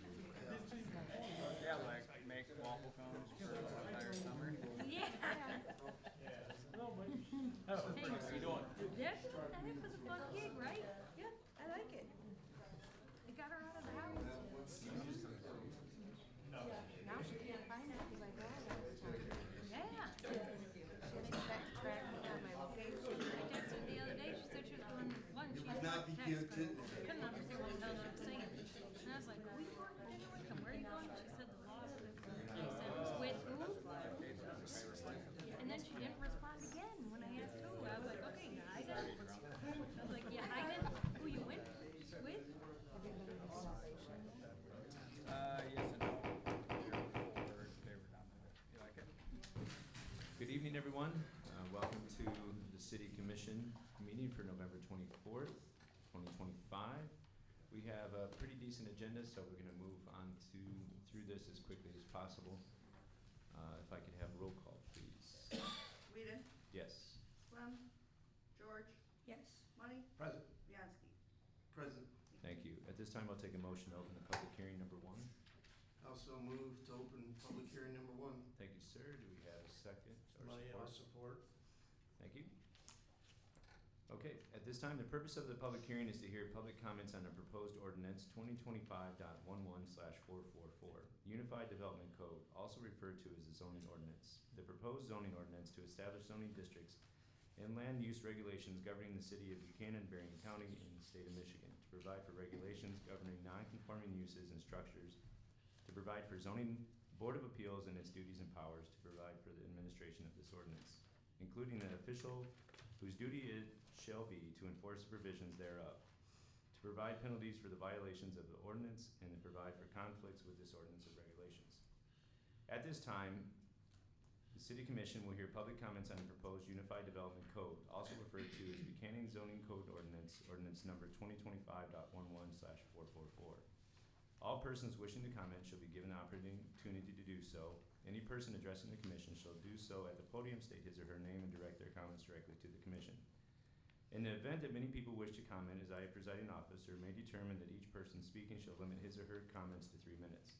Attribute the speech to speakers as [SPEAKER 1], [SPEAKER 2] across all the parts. [SPEAKER 1] Thanks. That was,
[SPEAKER 2] How you doing?
[SPEAKER 1] that was a fun gig, right? Yeah, I like it. It got her out of the house. Now she can't find it because I drive all the time. Yeah. She didn't track, track me down my location. I texted her the other day, she said she was going lunch. She
[SPEAKER 3] would not be
[SPEAKER 1] text,
[SPEAKER 3] cute
[SPEAKER 1] couldn't-
[SPEAKER 3] to-
[SPEAKER 1] Couldn't understand what the hell I was saying. And I was like, we work in Wickham, where are you going? She said, the law. of it." And I said, with who? And then she didn't respond again when I asked who. I was like, okay, I got it. I was like, yeah, I get who you went with.
[SPEAKER 2] Uh, yes and no. You're forward. They were down there. You like it?
[SPEAKER 4] Good evening, everyone. Uh, Welcome to the City Commission meeting for November 24th, 2025. We have a pretty decent agenda, so we're going to move on to, through this as quickly as possible. Uh, If I could have roll call, please.
[SPEAKER 5] Whedon,
[SPEAKER 4] Yes.
[SPEAKER 5] Swem, George,
[SPEAKER 1] Yes.
[SPEAKER 5] Money,
[SPEAKER 3] Present.
[SPEAKER 5] Bianski.
[SPEAKER 3] Present.
[SPEAKER 4] Thank you. At this time, I'll take a motion to open the public hearing number one.
[SPEAKER 3] Also move to open public hearing number one.
[SPEAKER 4] Thank you, sir. Do we have a second or
[SPEAKER 3] Money, I'll
[SPEAKER 4] support?
[SPEAKER 3] support.
[SPEAKER 4] Thank you. Okay, at this time, the purpose of the public hearing is to hear public comments on the proposed ordinance twenty twenty-five dot one-one slash four-four-four, Unified Development Code, also referred to as the zoning ordinance. The proposed zoning ordinance to establish zoning districts and land use regulations governing the city of Buchanan, Bering County, and the state of Michigan, to provide for regulations governing non-conforming uses and structures, to provide for zoning board of appeals and its duties and powers, to provide for the administration of this ordinance including an official whose duty it shall be to enforce the provisions thereof, to provide penalties for the violations of the ordinance, and to provide for conflicts with this ordinance or regulations. At this time, the city commission will hear public comments on the proposed Unified Development Code, also referred to as Buchanan Zoning Code Ordinance, ordinance number 202511 slash four four four. All persons wishing to comment shall be given the opportunity to do so. Any person addressing the commission shall do so at the podium, state his or her name, and direct their comments directly to the commission. In the event that many people wish to comment, as I, presiding officer, may determine that each person speaking shall limit his or her comments to three minutes.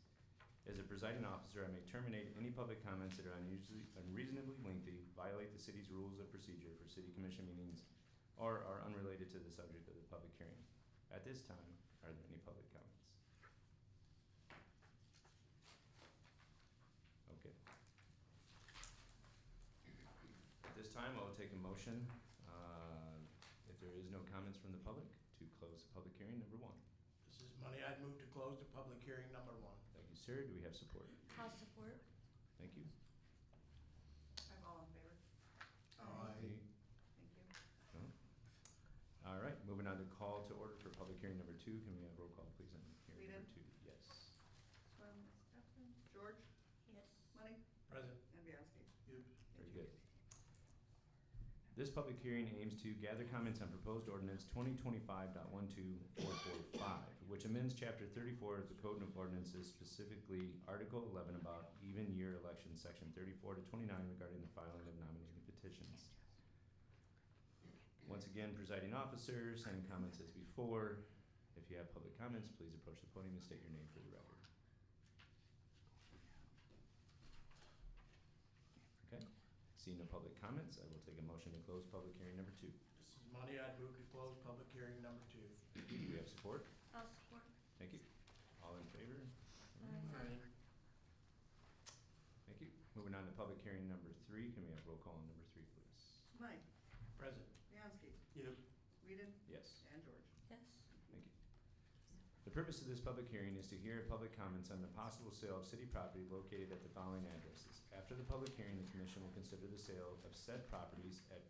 [SPEAKER 4] As a presiding officer, I may terminate any public comments that are unusually, unreasonably lengthy, violate the city's rules of procedure for city commission meetings, or are unrelated to the subject of the public hearing. At this time, are there any public comments? Okay. At this time, I'll take a motion, uh, if there is no comments from the public, to close the public hearing number one.
[SPEAKER 3] This is money. I'd move to close the public hearing number one.
[SPEAKER 4] Thank you, sir. Do we have support?
[SPEAKER 1] I'll support.
[SPEAKER 4] Thank you.
[SPEAKER 5] I'm all in favor.
[SPEAKER 3] Aye.
[SPEAKER 5] Thank you.
[SPEAKER 4] All right, moving on to call to order for public hearing number two. Can we have roll call, please, on hearing number two? Yes.
[SPEAKER 5] Swem, Stefan, George,
[SPEAKER 1] Yes.
[SPEAKER 5] Money,
[SPEAKER 3] Present.
[SPEAKER 5] and Bianski.
[SPEAKER 4] Very good. This public hearing aims to gather comments on proposed ordinance twenty twenty-five dot which amends chapter thirty-four of the Code of Ordinances, specifically Article eleven about even year elections, section thirty-four to twenty-nine regarding the filing of nominating petitions. Once again, presiding officer, same comments as before. If you have public comments, please approach the podium and state your name for the record. Okay, seeing no public comments, I will take a motion to close public hearing number two.
[SPEAKER 3] This is money. I'd move to close public hearing number two.
[SPEAKER 4] Do we have support?
[SPEAKER 1] I'll support.
[SPEAKER 4] Thank you. All in favor? Thank you. Moving on to public hearing number three, can we have roll call on number three, please?
[SPEAKER 5] Money,
[SPEAKER 3] Present.
[SPEAKER 5] Bianski,
[SPEAKER 3] Yep.
[SPEAKER 5] Whedon,
[SPEAKER 4] Yes.
[SPEAKER 5] and George.
[SPEAKER 1] Yes.
[SPEAKER 4] The purpose of this public hearing is to hear public comments on the possible sale of city property located at the following addresses. After the public hearing, the commission will consider the sale of said properties at